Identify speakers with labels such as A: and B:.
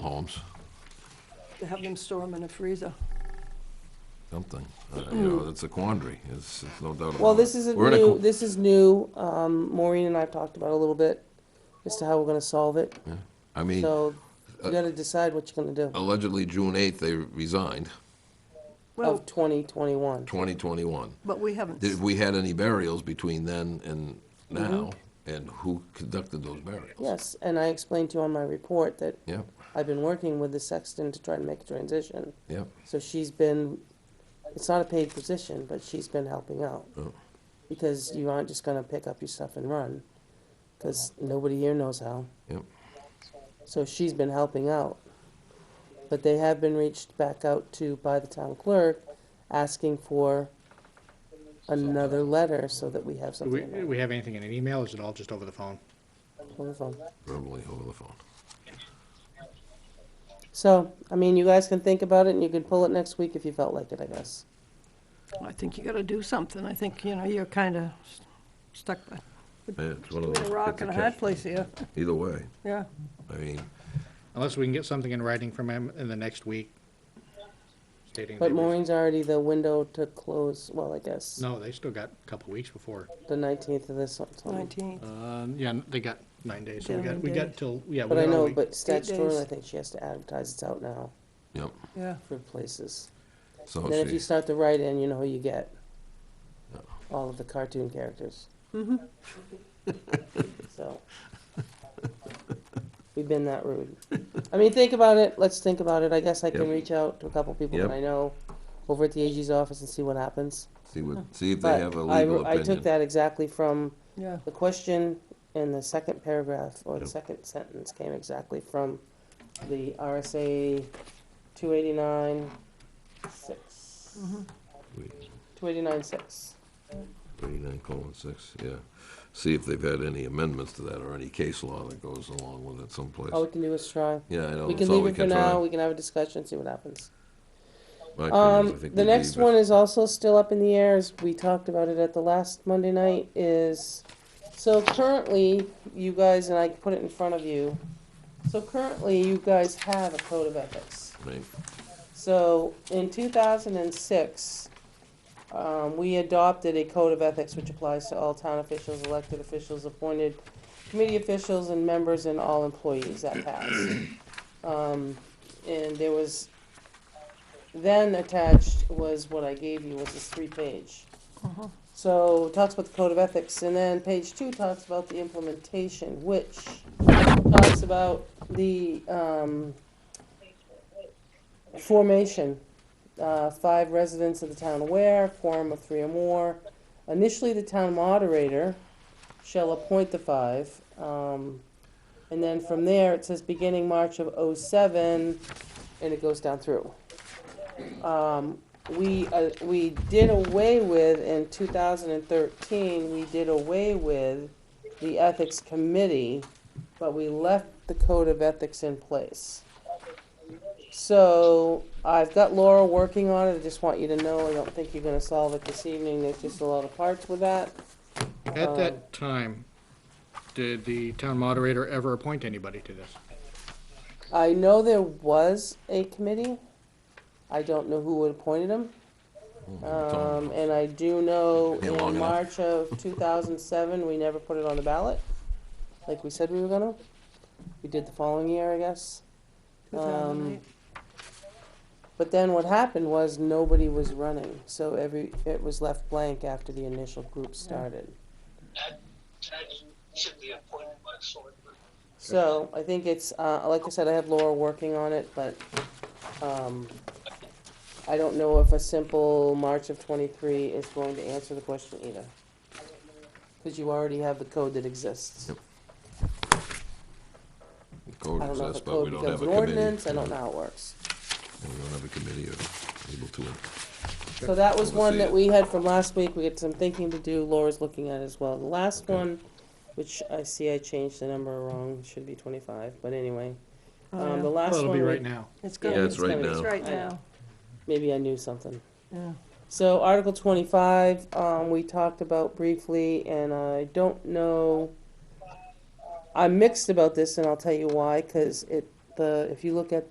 A: homes,
B: to have them store them in a freezer.
A: something. Uh, You know, it's a quandary, it's it's no doubt about it.
C: Mm. Well, this isn't
A: We're in a
C: new,
A: qu-
C: this is new, um, Maureen and I have talked about it a little bit, as to how we're gonna solve it,
A: Yeah. Uh, oh. I mean,
C: so you gotta decide what you're gonna do,
A: allegedly June 8th, they resigned,
B: Well,
C: of twenty twenty-one.
A: 2021.
B: but we haven't,
A: If we had any burials between then and
C: Mm-hmm.
A: now, and who conducted those burials?
C: Yes, and I explained to you on my report that
A: Yep,
C: I've been working with the sexton to try to make a transition,
A: yep.
C: so she's been, it's not a paid position, but she's been helping out.
A: Oh.
C: Because you aren't just gonna pick up your stuff and run, cause nobody here knows how.
A: Yep.
C: So she's been helping out. But they have been reached back out to by the town clerk, asking for another letter so that we have
D: Do
C: something
D: we, do
C: about it.
D: we have anything in an email, or is it all just over the phone?
C: Hold the phone.
A: verbally over the phone.
C: So, I mean, you guys can think about it and you can pull it next week if you felt like it, I guess.
B: I think you gotta do something. I think, you know, you're kinda stuck
A: Yeah, It's one of
B: between
A: those-
B: a rock
A: it's
B: and a
A: catch-
B: hard place here,
A: Either way,
B: yeah.
A: I mean,
D: Unless we can get something in writing from him in the next week stating.
C: But
D: that we-
C: Maureen's already the window to close, well, I guess,
D: No, they still got a couple weeks before.
C: the nineteenth of this one. so-
B: Nineteenth,
D: Um, yeah, they got nine days, so we
B: Yeah,
D: got, we
B: nine
D: got
B: days.
D: till, yeah. we
C: But I
D: got a
C: know,
D: week.
C: but statutory,
B: days.
C: I think she has to advertise it's out now
A: yep,
B: yeah.
C: for places.
A: so
C: Then if you
A: she,
C: start to write in, you know who you get.
A: No.
C: All of the cartoon characters.
B: Mm-hmm.
C: So. We've been that rude. I mean, think about it, let's think about it, I guess I can
A: Yep.
C: reach out to a couple people
A: Yep.
C: that I know over at the AG's office and see what happens.
A: see what, see if they
C: But
A: have a
C: I-
A: legal
C: I took
A: opinion.
C: that exactly from
B: Yeah,
C: the question in the second paragraph, or the
A: Yep.
C: second sentence came exactly from the RSA two eighty-nine six.
A: Wait,
C: Two eighty-nine six.
A: 39 colon 6, yeah. See if they've had any amendments to that or any case law that goes along with it someplace.
C: All Oh, we can do is try.
A: Yeah, I know,
C: We
A: Oh, that's
C: can
A: all
C: leave
A: we
C: it for
A: can try.
C: now, we can have a discussion, see what happens.
A: My opinion is I
C: Um,
A: think
C: the
A: we
C: next
A: leave it.
C: one is also still up in the air, as we talked about it at the last Monday night, is, so currently, you guys, and I put it in front of you, so currently, you guys have a code of ethics.
A: Right.
C: So, in two thousand and six, um, we adopted a code of ethics which applies to all town officials, elected officials, appointed committee officials and members and all employees that passed. Um, and there was, then attached was what I gave you, was this three-page.
B: Uh-huh.
C: So, it talks about the code of ethics, and then page two talks about the implementation, which talks about the, um, formation, uh, five residents of the town aware, quorum of three or more. Initially, the town moderator shall appoint the five. Um, and then from there, it says beginning March of '07, and it goes down through. Um, we, uh, we did away with, in 2013, we did away with the ethics committee, but we left the code of ethics in place. So I've got Laura working on it. I just want you to know, I don't think you're gonna solve it this evening. There's just a lot of parts with that.
D: At
C: uh,
D: that time, did the town moderator ever appoint anybody to this?
C: I know there was a committee. I don't know who appointed them. Um, and I do know
A: Been long
C: in
A: enough.
C: March of two thousand seven, we never put it on the ballot, like we said we were gonna. We did the following year, I guess.
B: two thousand eight.
C: But then what happened was nobody was running, so every, it was left blank after the initial group started.
E: that, that should be appointed by the selectmen.
C: So I think it's, uh, like I said, I have Laura working on it, but, um, I don't know if a simple March of twenty-three is going to answer the question either. Cause you already have the code that exists.
A: Yep. The Code
C: I don't know if
A: exists,
C: a
A: but we
C: code
A: don't have
C: becomes
A: a
C: an
A: committee.
C: ordinance, I don't know how it works.
A: We don't have a committee or able to.
C: So that was
A: Oversee
C: one that
A: it.
C: we had from last week, we had some thinking to do, Laura's looking at it as well. The last
A: Okay.
C: one, which I see I changed the number wrong, should be twenty-five, but anyway.
B: Oh,
C: Um,
B: yeah.
C: the last
D: Well,
C: one.
D: it'll be
C: we-
D: right now.
B: It's
C: yeah,
B: gonna
A: Yeah,
B: be-
A: it's right
C: gonna be-
A: now.
B: It's right
C: I know.
B: now,
C: Maybe I knew something.
B: yeah.
C: So Article twenty-five, um, we talked about briefly, and I don't know, I'm mixed about this, and I'll tell you why, cause it, the, if you look at